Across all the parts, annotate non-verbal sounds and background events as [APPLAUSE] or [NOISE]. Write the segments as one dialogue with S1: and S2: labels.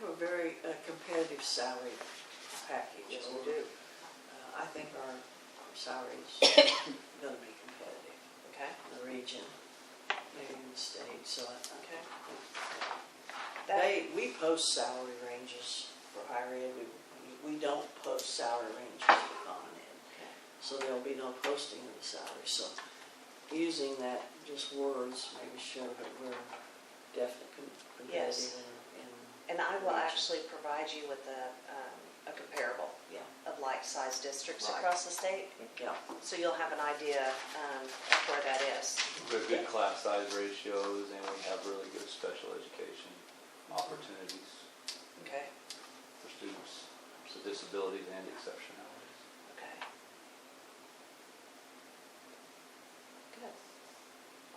S1: have a very uh, competitive salary package.
S2: Yes, we do.
S1: Uh, I think our our salaries are going to be competitive
S2: Okay,
S1: in the region, maybe in the state, so I think.
S2: okay. That,
S1: They, we post salary ranges for higher ed, we, we don't post salary ranges for common ed. So there'll be no posting of the salary, so using that, just words, maybe show that we're definitely com-
S2: Yes.
S1: competitive and, and,
S2: and I will actually provide you with a, um, a comparable
S1: yeah,
S2: of like-sized districts
S1: Right.
S2: across the state,
S1: yeah.
S2: so you'll have an idea, um, of where that is.
S3: We have good class size ratios and we have really good special education opportunities
S2: Okay.
S3: for students with disabilities and exceptionalities.
S2: Okay. Good.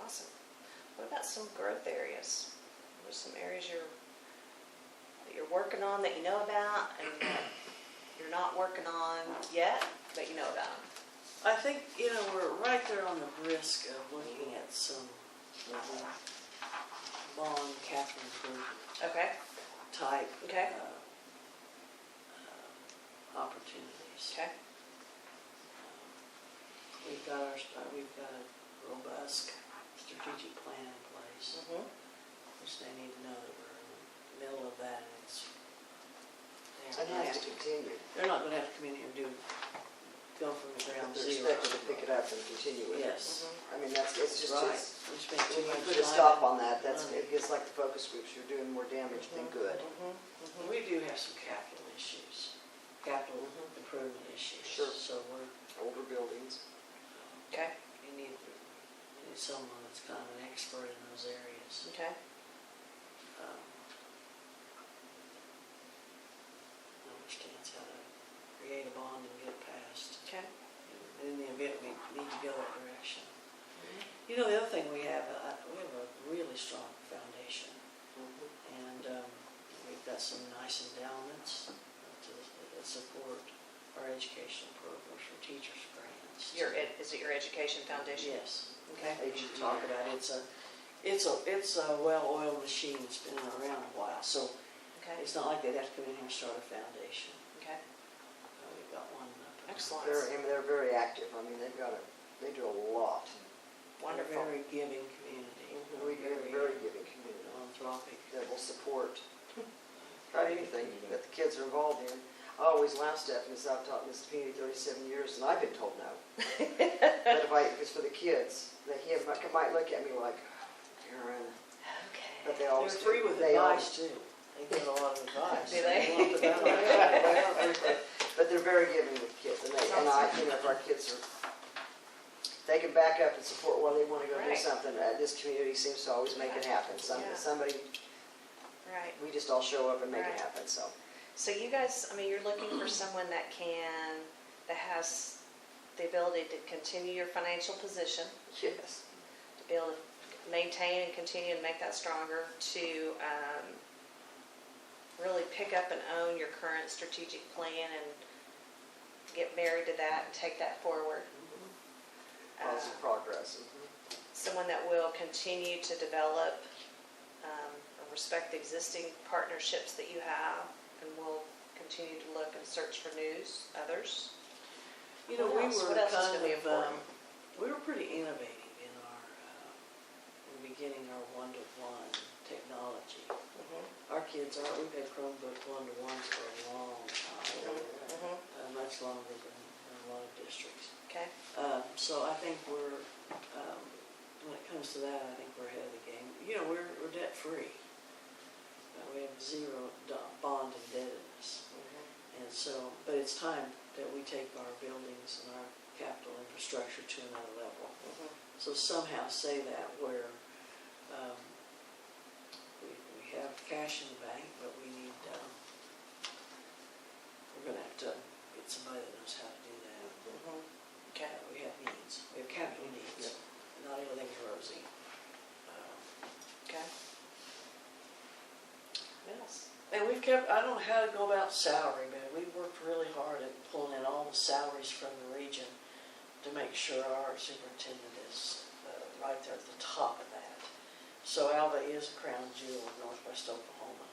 S2: Awesome. What about some growth areas? What are some areas you're, that you're working on that you know about and that you're not working on yet, but you know about?
S1: I think, you know, we're right there on the brisk of looking at some, uh, bond Catherine Kruger
S2: Okay,
S1: type.
S2: Okay.
S1: uh, uh, Opportunities.
S2: okay,
S1: We've got our, st- we've got a robust strategic plan in place,
S2: mhm,
S1: which they need to know that we're in the middle of that, and it's. they're
S4: It
S1: not
S4: has to
S1: gonna-
S4: continue.
S1: They're not gonna have to come in here and do, go from the ground
S4: They're
S1: zero.
S4: expected to pick it up and continue with it.
S1: Yes,
S2: mhm.
S4: I mean, that's, it's just,
S1: right.
S4: it's-
S1: We spent too
S4: when you
S1: much
S4: put a
S1: time-
S4: stop on Mm-hmm. that, that's, it gets like the focus groups, you're doing more damage than good.
S1: Well,
S2: Mhm, mhm.
S1: We do have some capital issues, capital
S4: Mhm.
S1: improvement issues.
S4: Sure.
S1: So we're,
S4: Older buildings,
S2: Okay,
S1: we need, we need someone that's kind of an expert in those areas.
S2: okay,
S1: um, understands how to create a bond and get it passed
S2: okay.
S1: in the event we need to go that direction. You know, the other thing we have, uh, we have a really strong foundation and um, we've got some nice endowments to that support our educational programs for teachers grants.
S2: Your, ed- is it your education foundation?
S1: Yes.
S2: Okay,
S1: We should talk about it. It's a, it's a, it's a well-oiled machine. It's been around a while, so
S2: okay,
S1: it's not like they'd have to come in here and start a foundation.
S2: okay,
S1: Uh, We've got one up. and-
S2: excellent,
S4: they're, I mean, they're very active, I mean, they've got a, they do a lot.
S1: Wonderful.
S2: wonderful.
S1: Very
S2: [LAUGHS]
S1: giving community.
S4: We get a Mm-hmm. very giving community
S1: Philanthropic.
S4: that will [LAUGHS] support about anything that the kids are involved in. I always laugh, Stephanie, because I've taught in this community thirty-seven years and I've been told no. But if I, if it's for the kids, they he might, might look at me like, Karen, but they
S1: They're
S4: always. do.
S1: free with
S4: They always-
S1: advice
S4: [LAUGHS]
S1: too. They give a lot of advice.
S2: Do they?
S1: want the
S4: Well,
S1: advice.
S2: [LAUGHS]
S4: yeah, But they're very giving with kids, and they, and I, you know, if our kids are, they can back up and support while they wanna go do
S2: Right.
S4: something, uh, this community seems to always make it happen, some,
S2: Yeah.
S4: somebody,
S2: Right.
S4: we just all show up and make
S2: Right.
S4: it happen, so.
S2: So you guys, I mean, you're looking for someone that can, that has the ability to continue your financial position,
S4: Yes.
S2: to be able to maintain and continue and make that stronger, to um, really pick up and own your current strategic plan and get married to that and take that forward.
S4: Positive
S2: Mm-hmm. Uh,
S4: progress. mm-hmm.
S2: Someone that will continue to develop um, or respect the existing partnerships that you have and will continue to look and search for news, others.
S1: You know, we
S2: What else?
S1: were
S2: What else is
S1: kind
S2: really
S1: of, um,
S2: important?
S1: we were pretty innovative in our, uh, in beginning our one-to-one technology. Our kids are, we've had Chromebook one-to-ones for a long time,
S2: Mhm.
S1: uh, much longer than than a lot of districts.
S2: Okay,
S1: Uh, So I think we're, um, when it comes to that, I think we're ahead of the game. You know, we're, we're debt-free. Uh, We have zero do- bond indebtedness. And so, but it's time that we take our buildings and our capital infrastructure to another level. So somehow say that where um, we we have cash in the bank, but we need, um, we're going to have to get somebody that knows how to do that.
S2: okay,
S1: Uh, We have needs, we have capital needs, not everything's rosy. Um,
S2: okay. Yes.
S1: And we've kept, I don't know how to go about salary, but we've worked really hard at pulling in all the salaries from the region to make sure our superintendent is uh, right there at the top of that. So Alva is a crown jewel of northwest Oklahoma.